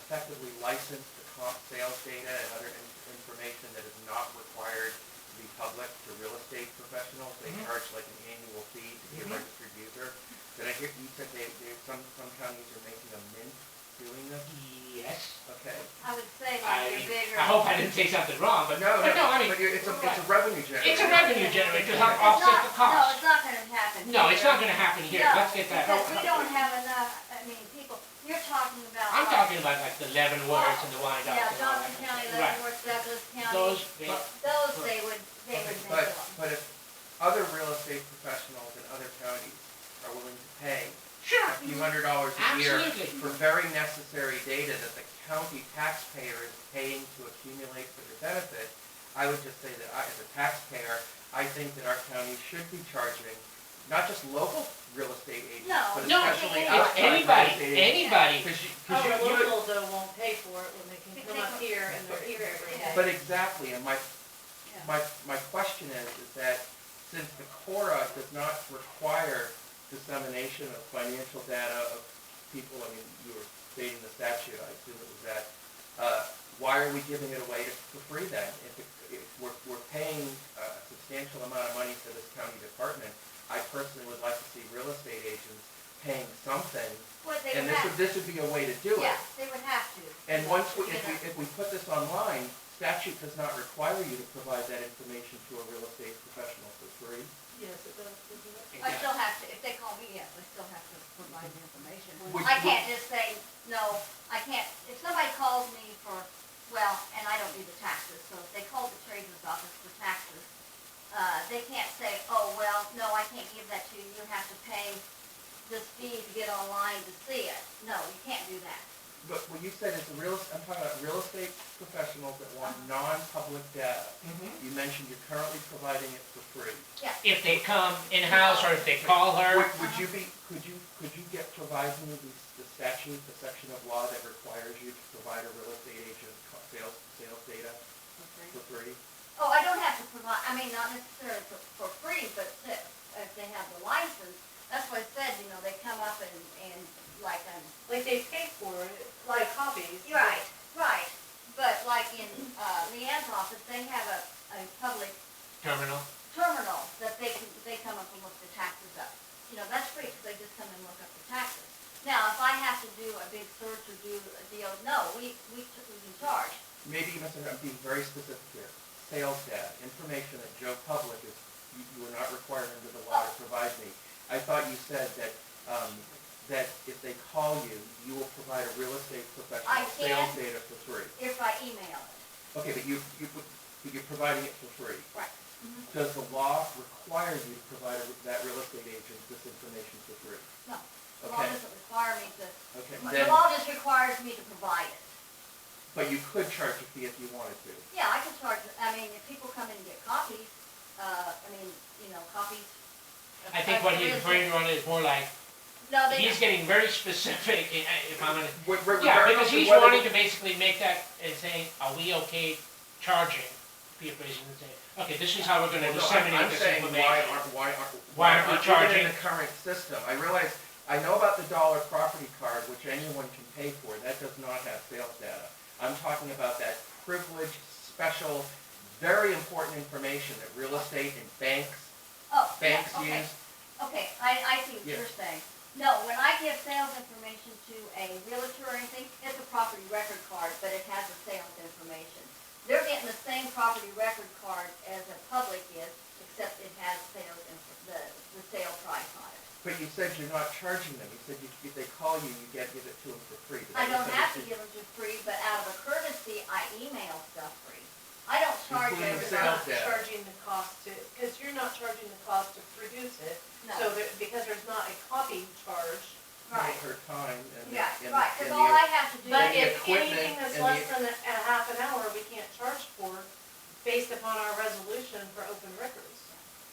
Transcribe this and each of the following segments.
effectively license the comp sales data and other in- information that is not required to be public to real estate professionals. They Mhm. charge like an annual fee to be a Mhm. registered user. Did I hear, you said they, they, some, some counties are making a mint doing this? Yes. Okay. I would say I, like your bigger. I hope I didn't say something wrong, but, But no, but no, no, I mean, but you're- it's a, it's a revenue generator. it's a revenue generator to help It's offset not- the cost. No, it's not gonna happen. No, it's here. not gonna happen here, No, let's get that. Because we don't have enough, I mean, people, you're talking about. Oh, I'm like, talking about like the Leavenworths and the Wyandottes. Yeah, and all Johnson that. County, Right. Leavenworth, Douglas County. Those, big- Those they would, they would make But, them. but if other real estate professionals in other counties are willing to pay sure, a few hundred dollars a year Absolutely. for very necessary data that the county taxpayer is paying to accumulate for their benefit, I would just say that I, as a taxpayer, I think that our county should be charging not just local real estate agents, No. but No, especially it's it's outside real anybody, estate agents. anybody, Cause you, Our 'cause you- you- locals Oh, though won't pay for it when they can come up here and they're here every day. But exactly, and my, Yeah. my, my question is, is that since the CORA does not require dissemination of financial data of people, I mean, you were stating the statute, I assume it was that, uh, why are we giving it away to- for free then? If, it- if we're, we're paying a substantial amount of money for this county department, I personally would like to see real estate agents paying something, What they and would this would, have, this would be a way to do it. yeah, they would have to. And once we, if we, Yeah. if we put this online, statute does not require you to provide that information to a real estate professional for free. Yes, it does, doesn't it? I still have to, if they call me, yeah, I still have to provide the information. Which- I can't just say, no, I can't, if somebody calls me for, well, and I don't do the taxes, so if they call the treasurer's office for taxes, uh, they can't say, oh, well, no, I can't give that to you, you have to pay this fee to get online to see it. No, you can't do that. But what you said is the real, I'm talking about real estate professionals that want non-public data. Mm-hmm. You mentioned you're currently providing it for free. if they come in-house or if they call her, Would, would you be, could you, could you get, provide me the, the statute, the section of law that requires you to provide a real estate agent co- sales, sales data for free? Oh, I don't have to provide, I mean, not necessarily for, for free, but to- if they have the license, that's what I said, you know, they come up and, and like, um, Like they pay for it, like copies. You're Right, right, but like in, uh, Leanne's office, they have a, a public terminal, terminal that they can, they come up and look the taxes up. You know, that's free, 'cause they just come and look up the taxes. Now, if I have to do a big search or do a deal, no, we, we, t- we can charge. maybe you must have, I'm being very specific here, sales data, information that Joe Public is, you, you are not required under the law to provide me. I thought you said that, um, that if they call you, you will provide a real estate I professional sales can. data for free. If I email it, Okay, but you, you, but you're providing it for free. Mm-hmm. Right. Does the law require you to provide a- that real estate agent this information for free? no. The law Okay, doesn't require me to, okay, the then, law just requires me to provide it. but you could charge a fee if you wanted to. Yeah, I can charge, I mean, if people come in and get copies, uh, I mean, you know, copies. of- I think of what the he's real referring estate- to is more like, No, they. he's getting very specific, i- i- if I'm gonna Re- re- Yeah, regardless because of he's whether- wanting to basically make that and saying, are we okay charging people and say, okay, this is how we're gonna Well, no, I'm- disseminate this I'm saying, why information. aren't, why aren't, Why why aren't we aren't we charging? in the current system? I realize, I know about the dollar property card, which anyone can pay for, that does not have sales data. I'm talking about that privileged, special, very important information that real estate and banks, Oh, yeah, banks okay, use. okay, I, I see what Yeah. you're saying. No, when I give sales information to a realtor or anything, it's a property record card, but it has the sales information. They're getting the same property record card as a public is, except it has sales, inf- the, the sale price on it. But you said you're not charging them, you said you, if they call you, you get, give it to them for free. Did I don't have to misunderstand? give them for free, but out of a courtesy, I email stuff free. I don't charge Including You're the everybody, sales not data. charging the cost to, because you're not charging the cost to produce it. So no, there, because there's not a copy charge. right, Her time and, yeah, and, right, and cause the- all I have to do But is, the if equipment anything that's and less the- than a, a half an hour, we can't charge for based upon our resolution for open records.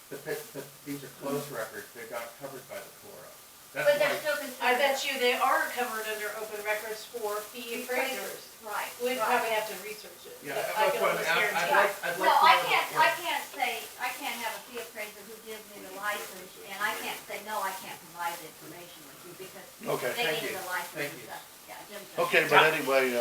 but, but, but these are closed records, they're not covered by the Flora. That's but why- they're still I considered. bet you they are covered under open records for fee appraisers. Right, We'd right. probably have to research it. Yeah, but that's I can what I'm- almost I'd- I'd guarantee like, I'd like to. No, know I the can't, Flora. I can't say, I can't have a fee appraiser who gives me the license, and I can't say, no, I can't provide the information with you, because Okay, they thank need you. the license Thank and you. stuff. Yeah, Jim's. Okay, but anyway, uh,